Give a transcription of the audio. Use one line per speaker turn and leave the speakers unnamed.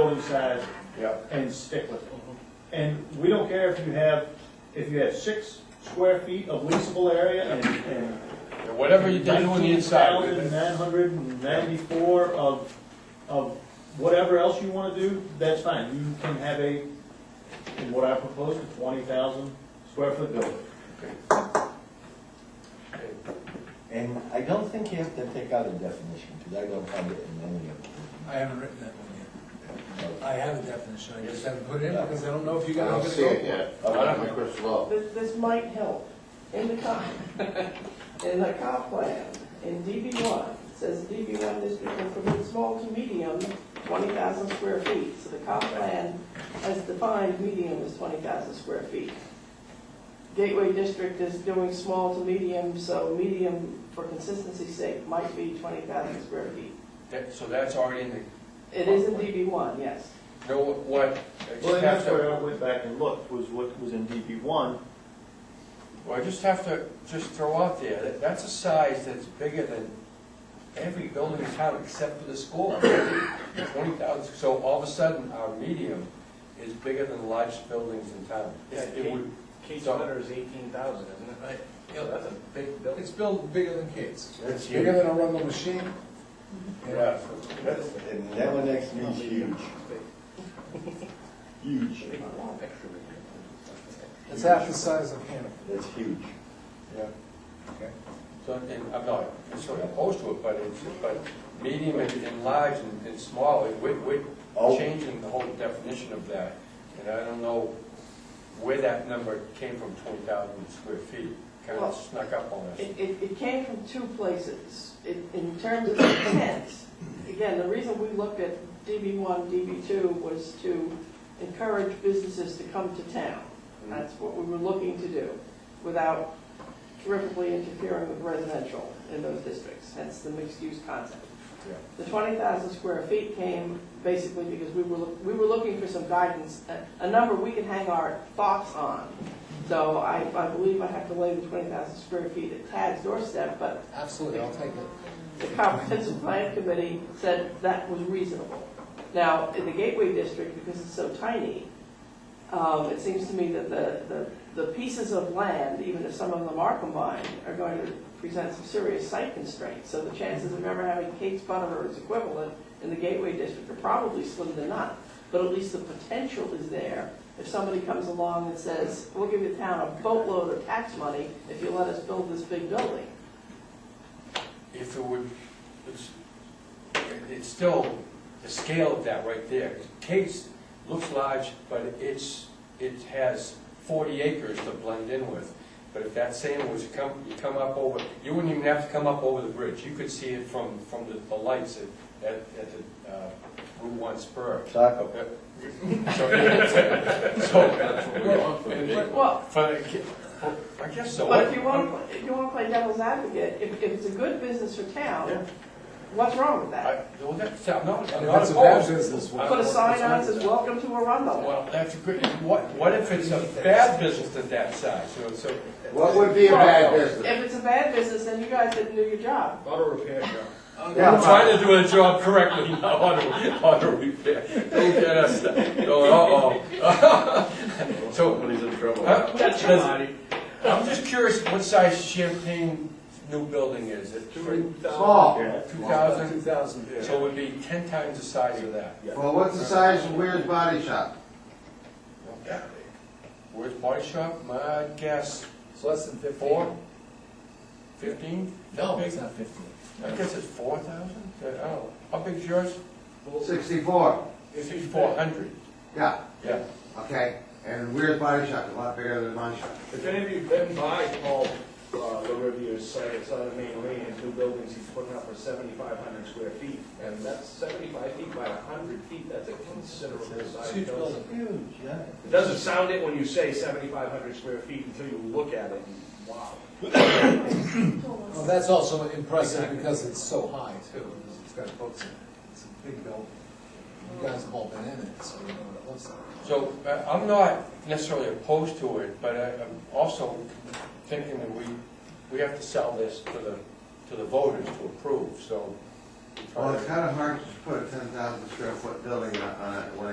building size
Yep.
and stick with it. And we don't care if you have, if you have six square feet of leasable area and, and
And Whatever you do on the inside with it.
19,994 of, of whatever else you wanna do, that's fine, you can have a, in what I propose, a 20,000 square foot building.
And I don't think you have to take out a definition, because I don't find it in any of
I haven't written that one yet.
them.
I have a definition, I just haven't put it in because I don't know if you
I
got.
don't see it yet. I don't have my crystal ball.
This, this might help. In the comp, in the comp plan, in DB one, it says DB one district will permit small to medium, twenty thousand square feet. So the comp plan has defined medium as twenty thousand square feet. Gateway district is doing small to medium, so medium, for consistency's sake, might be twenty thousand square feet.
That- So that's already in the,
It is in DB one, yes.
know what, I
Well,
just
and
have
that's where
to,
I went back and looked, was what was in DB one,
well, I just have to just throw out there, that that's a size that's bigger than every building in town except for the school. Twenty thousand, so all of a sudden, our medium is bigger than the largest buildings in town.
Yeah,
It would,
Kate's letter is eighteen thousand, isn't it? Right.
Yeah.
That's a big building.
It's built bigger than Kate's.
that's
Bigger
huge.
than a Rumble machine.
Yeah, that's,
And that one next to me is huge. Huge,
Oh,
It's half the size of Hannah.
that's huge.
Yeah. So, and I'm not necessarily opposed to it, but it's, but medium and, and large and, and small, it- we're,
Oh.
we're changing the whole definition of that. And I don't know where that number came from, twenty thousand square feet, kind
Well,
of snuck up on us.
It, it, it came from two places. It, in terms of intent, again, the reason we looked at DB one, DB two was to encourage businesses to come to town.
Mm.
That's what we were looking to do, without terrifically interfering with residential in those districts, hence the mixed-use concept.
Yeah.
The twenty thousand square feet came basically because we were, look- we were looking for some guidance, a, a number we could hang our thoughts on. So I, I believe I have to lay the twenty thousand square feet at Tad's doorstep, but
Absolutely, I'll take it.
the comprehensive plan committee said that was reasonable. Now, in the Gateway District, because it's so tiny, um, it seems to me that the, the, the pieces of land, even if some of them are combined, are going to present some serious site constraints. So the chances of ever having Kate's Butter or its equivalent in the Gateway District are probably slim to none. But at least the potential is there. If somebody comes along and says, we'll give the town a boatload of tax money if you let us build this big building.
If it would, it's, it's still the scale of that right there. Case looks large, but it's, it has forty acres to blend in with. But if that same was to come, you come up over, you wouldn't even have to come up over the bridge. You could see it from, from the, the lights at, at, at the, uh, Route One spur.
Taco.
Okay. So, so,
Well,
but, I guess so.
But if you want, to if you want to play devil's advocate, if, if it's a good business for
Yeah.
town, what's wrong with
I,
that?
well, that's, I'm not, I'm
And
not
That's a bad
opposed.
business. why-
Put a sign on it
It's
says, welcome to Arundel.
Well, that's a good, what, what if it's a bad business at that size, so, so.
What would be a bad business?
If it's a bad business, then you guys didn't do your job.
Auto repair shop.
I'm trying to do a job correctly, now, auto, auto repair, don't get us, oh, uh-oh. So,
Somebody's in trouble.
uh, does- I'm just curious what size Champlain new building is, it two
Small.
thousand?
Two thousand, yeah.
So it would be ten times the size of that.
Well, what's the size of Weir's Body Shop?
Where's body shop, my guess,
It's less than fifteen.
four, fifteen?
No, it's not fifteen.
I guess it's four thousand, Uh, oh. I don't know, how big's yours?
Sixty-four.
Sixty-four hundred.
Yeah,
Yeah.
okay. And Weir's Body Shop is a lot bigger than my shop.
If any of you have been by Paul, uh, the Rivier's site, it's on the main lane, and two buildings he's putting up for seventy-five hundred square feet. And that's seventy-five feet by hundred feet, that's a considerable size
huge
building.
Huge, yeah.
It doesn't sound it when you say seventy-five hundred square feet until you look at it, and wow.
Well, that's also impressive because it's so high too, because it's got books in it. It's a big building. You guys have all been in it, so you know what it looks like.
So uh, I'm not necessarily opposed to it, but I- I'm also thinking that we, we have to sell this to the, to the voters to approve, so try
Well,
to-
it's kind of hard to put a ten thousand square foot building on, on a, when